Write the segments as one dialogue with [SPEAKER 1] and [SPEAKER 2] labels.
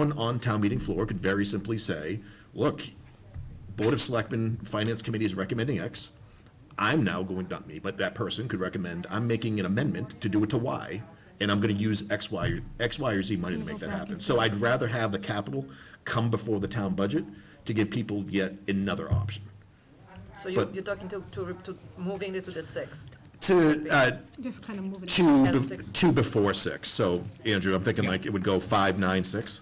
[SPEAKER 1] Someone on town meeting floor could very simply say, look, Board of Selectmen, Finance Committee is recommending X. I'm now going, not me, but that person could recommend, I'm making an amendment to do it to Y, and I'm gonna use X, Y, or- X, Y, or Z money to make that happen. So I'd rather have the capital come before the town budget to give people yet another option.
[SPEAKER 2] So you,
[SPEAKER 1] But-
[SPEAKER 2] you're talking to, to, re- to moving it to the sixth?
[SPEAKER 1] To, uh,
[SPEAKER 3] Just kind of moving. it.
[SPEAKER 1] two,
[SPEAKER 2] At
[SPEAKER 1] be-
[SPEAKER 2] six.
[SPEAKER 1] two before six, so, Andrew, I'm thinking like it would go five, nine, six.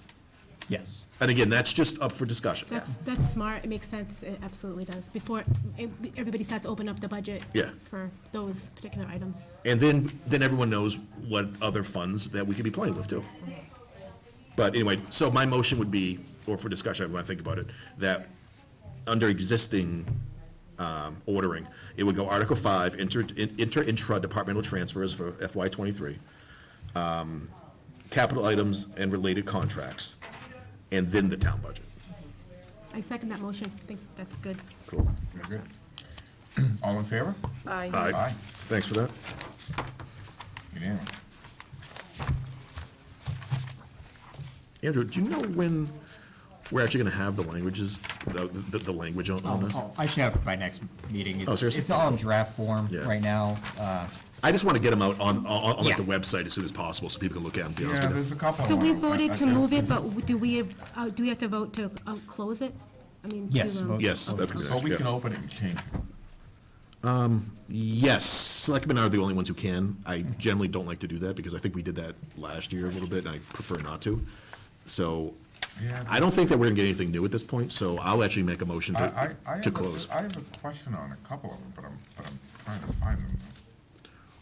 [SPEAKER 4] Yes.
[SPEAKER 1] And again, that's just up for discussion.
[SPEAKER 3] That's, that's smart, it makes sense, it absolutely does, before it- everybody starts to open up the budget.
[SPEAKER 1] Yeah.
[SPEAKER 3] For those particular items.
[SPEAKER 1] And then, then everyone knows what other funds that we could be playing with too. But anyway, so my motion would be, or for discussion, when I think about it, that under existing um, ordering, it would go Article Five, inter, in- inter-intra-departmental transfers for FY twenty-three, um, capital items and related contracts, and then the town budget.
[SPEAKER 3] I second that motion, I think that's good.
[SPEAKER 1] Cool.
[SPEAKER 5] Very good. All in favor?
[SPEAKER 2] Aye.
[SPEAKER 1] Aye.
[SPEAKER 5] Aye.
[SPEAKER 1] Thanks for that.
[SPEAKER 5] Unanimous.
[SPEAKER 1] Andrew, do you know when we're actually gonna have the languages, the, the, the language on, on this?
[SPEAKER 4] Oh, I should have it by next meeting. It's,
[SPEAKER 1] Oh, seriously?
[SPEAKER 4] it's all in draft form
[SPEAKER 1] Yeah.
[SPEAKER 4] right now. Uh,
[SPEAKER 1] I just want to get them out on, on, on like the
[SPEAKER 4] Yeah.
[SPEAKER 1] website as soon as possible so people can look at them, be honest
[SPEAKER 5] Yeah,
[SPEAKER 1] with you.
[SPEAKER 5] there's a couple.
[SPEAKER 3] So we
[SPEAKER 5] of them.
[SPEAKER 3] voted
[SPEAKER 5] I-
[SPEAKER 3] to
[SPEAKER 5] I-
[SPEAKER 3] move it, but do we, uh, do we have to vote to uh, close it? I mean, to,
[SPEAKER 4] Yes,
[SPEAKER 3] um,
[SPEAKER 4] vote.
[SPEAKER 1] Yes, that's
[SPEAKER 5] So
[SPEAKER 1] correct,
[SPEAKER 5] Oh, we can
[SPEAKER 1] yeah.
[SPEAKER 5] open it and change it.
[SPEAKER 1] Yes, selectmen are the only ones who can. I generally don't like to do that because I think we did that last year a little bit and I prefer not to. So
[SPEAKER 5] Yeah,
[SPEAKER 1] I don't think that we're gonna get anything new at this point, so I'll actually make a motion
[SPEAKER 5] I, I, I
[SPEAKER 1] to,
[SPEAKER 5] have
[SPEAKER 1] to
[SPEAKER 5] a-
[SPEAKER 1] close.
[SPEAKER 5] I have a question on a couple of them, but I'm, but I'm trying to find them.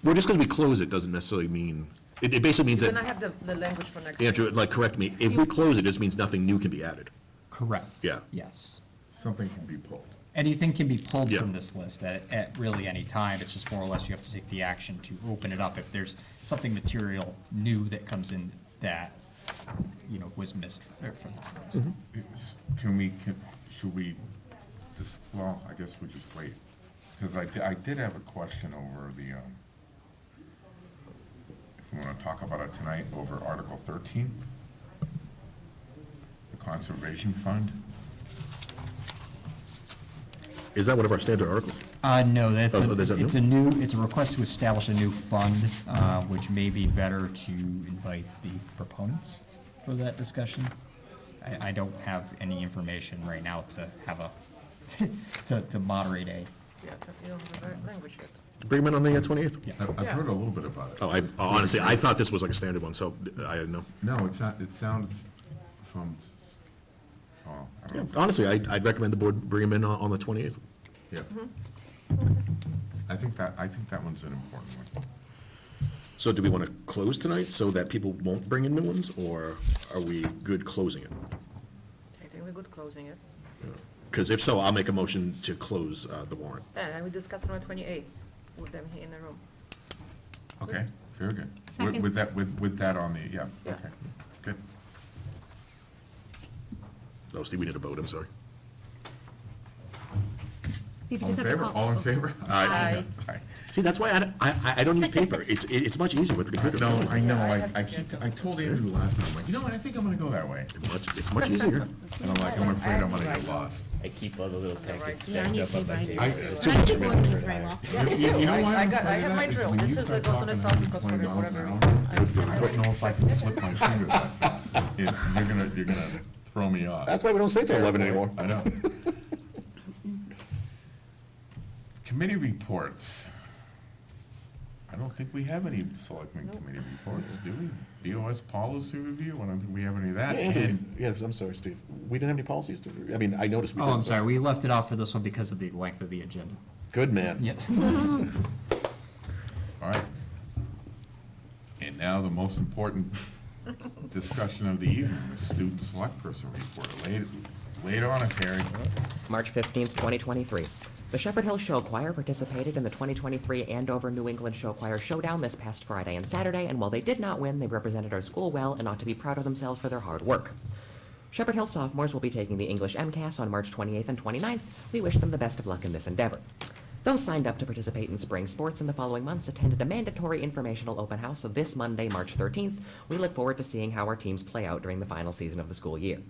[SPEAKER 1] Well, just because we close it doesn't necessarily mean, it, it basically means
[SPEAKER 2] Then I
[SPEAKER 1] that,
[SPEAKER 2] have the, the language for next.
[SPEAKER 1] Andrew, like, correct me, if we close it, it just means nothing new can be added.
[SPEAKER 4] Correct.
[SPEAKER 1] Yeah.
[SPEAKER 4] Yes.
[SPEAKER 5] Something can be pulled.
[SPEAKER 4] Anything can be pulled
[SPEAKER 1] Yeah.
[SPEAKER 4] from this list at, at really any time. It's just more or less you have to take the action to open it up if there's something material new that comes in that, you know, was missed uh, from this list.
[SPEAKER 1] Mm-hmm.
[SPEAKER 5] It's- Can we, can, should we, just, well, I guess we just wait. Because I, di- I did have a question over the, um, if we want to talk about it tonight, over Article thirteen, the Conservation Fund.
[SPEAKER 1] Is that one of our standard articles?
[SPEAKER 4] Uh, no, that's,
[SPEAKER 1] Oh, is that
[SPEAKER 4] a- it's
[SPEAKER 1] new?
[SPEAKER 4] a new, it's a request to establish a new fund, uh, which may be better to invite the proponents for that discussion. I, I don't have any information right now to have a, to, to moderate a,
[SPEAKER 2] Yeah, but you don't have the right language yet.
[SPEAKER 1] Bring 'em in on the uh, twenty-eighth?
[SPEAKER 4] yeah.
[SPEAKER 5] I- I've heard a little bit about it.
[SPEAKER 1] Oh, I, honestly, I thought this was like a standard one, so uh, I didn't know.
[SPEAKER 5] No, it's not, it sounds from, oh, I
[SPEAKER 1] Yeah,
[SPEAKER 5] don't know.
[SPEAKER 1] Honestly, I'd, I'd recommend the board bring them in on, on the twenty-eighth.
[SPEAKER 5] Yeah. I think that, I think that one's an important one.
[SPEAKER 1] So do we want to close tonight so that people won't bring in new ones, or are we good closing it?
[SPEAKER 2] I think we're good closing it.
[SPEAKER 1] Because if so, I'll make a motion to close, uh, the warrant.
[SPEAKER 2] And then we discuss it on twenty-eighth with them here in the room.
[SPEAKER 5] Okay, very good. With-
[SPEAKER 3] Second.
[SPEAKER 5] With that, with, with that on the, yeah,
[SPEAKER 2] Yeah.
[SPEAKER 5] okay, good.
[SPEAKER 1] Oh, Steve, we need a vote, I'm sorry.
[SPEAKER 3] so if you
[SPEAKER 5] All
[SPEAKER 3] just have
[SPEAKER 5] in
[SPEAKER 3] to
[SPEAKER 5] favor,
[SPEAKER 3] call-
[SPEAKER 5] all in favor?
[SPEAKER 2] Aye.
[SPEAKER 5] Aye.
[SPEAKER 1] See, that's why I, don't- I, I- I don't use paper. It's, it- it's much easier with the computer.
[SPEAKER 5] No, I know,
[SPEAKER 2] I
[SPEAKER 5] I,
[SPEAKER 2] have to
[SPEAKER 5] I
[SPEAKER 2] get
[SPEAKER 5] keep, I told Andrew last time, I'm like, you know what, I think I'm gonna go that way.
[SPEAKER 1] It's much, it's much easier.
[SPEAKER 5] And I'm like, I'm afraid I'm gonna get lost.
[SPEAKER 6] I keep all the little packets
[SPEAKER 2] right.
[SPEAKER 6] stacked
[SPEAKER 3] Yeah, I need
[SPEAKER 6] up
[SPEAKER 3] to
[SPEAKER 6] on my
[SPEAKER 3] find it.
[SPEAKER 6] table.
[SPEAKER 5] I,
[SPEAKER 6] so
[SPEAKER 5] it's
[SPEAKER 3] My keyboard is very well.
[SPEAKER 5] You know why
[SPEAKER 2] I
[SPEAKER 5] I'm
[SPEAKER 2] got- I
[SPEAKER 5] afraid
[SPEAKER 2] have my
[SPEAKER 5] of that? Is
[SPEAKER 2] drill.
[SPEAKER 5] when
[SPEAKER 2] This
[SPEAKER 5] you
[SPEAKER 2] is
[SPEAKER 5] start
[SPEAKER 2] the goes on
[SPEAKER 5] talking
[SPEAKER 2] the top
[SPEAKER 5] about
[SPEAKER 2] because for
[SPEAKER 5] $20 an
[SPEAKER 2] whatever
[SPEAKER 5] hour,
[SPEAKER 2] reason, I-
[SPEAKER 5] I don't know if I can flip my fingers that fast. It- You're gonna, you're gonna throw me off.
[SPEAKER 1] That's why we don't stay till eleven anymore.
[SPEAKER 5] I know. Committee reports. I don't think we have any selectmen committee reports, do we? BOS policy review, I don't think we have any of that. And
[SPEAKER 1] Yes, I'm sorry, Steve. We didn't have any policies to, I mean, I noticed we
[SPEAKER 4] Oh,
[SPEAKER 1] didn't,
[SPEAKER 4] I'm
[SPEAKER 1] but-
[SPEAKER 4] sorry, we left it off for this one because of the length of the agenda.
[SPEAKER 1] Good man.
[SPEAKER 4] Yeah.
[SPEAKER 5] All right. And now the most important discussion of the evening, the student select person report. Late, late on us, Harry.
[SPEAKER 7] March 15th, 2023. The Shepherd Hill Show Choir participated in the 2023 Andover New England Show Choir Showdown this past Friday and Saturday, and while they did not win, they represented our school well and ought to be proud of themselves for their hard work. Shepherd Hill sophomores will be taking the English MCAS on March 28th and 29th. We wish them the best of luck in this endeavor. Those signed up to participate in spring sports in the following months attended a mandatory informational open house this Monday, March 13th. We look forward to seeing how our teams play out during the final season of the school year.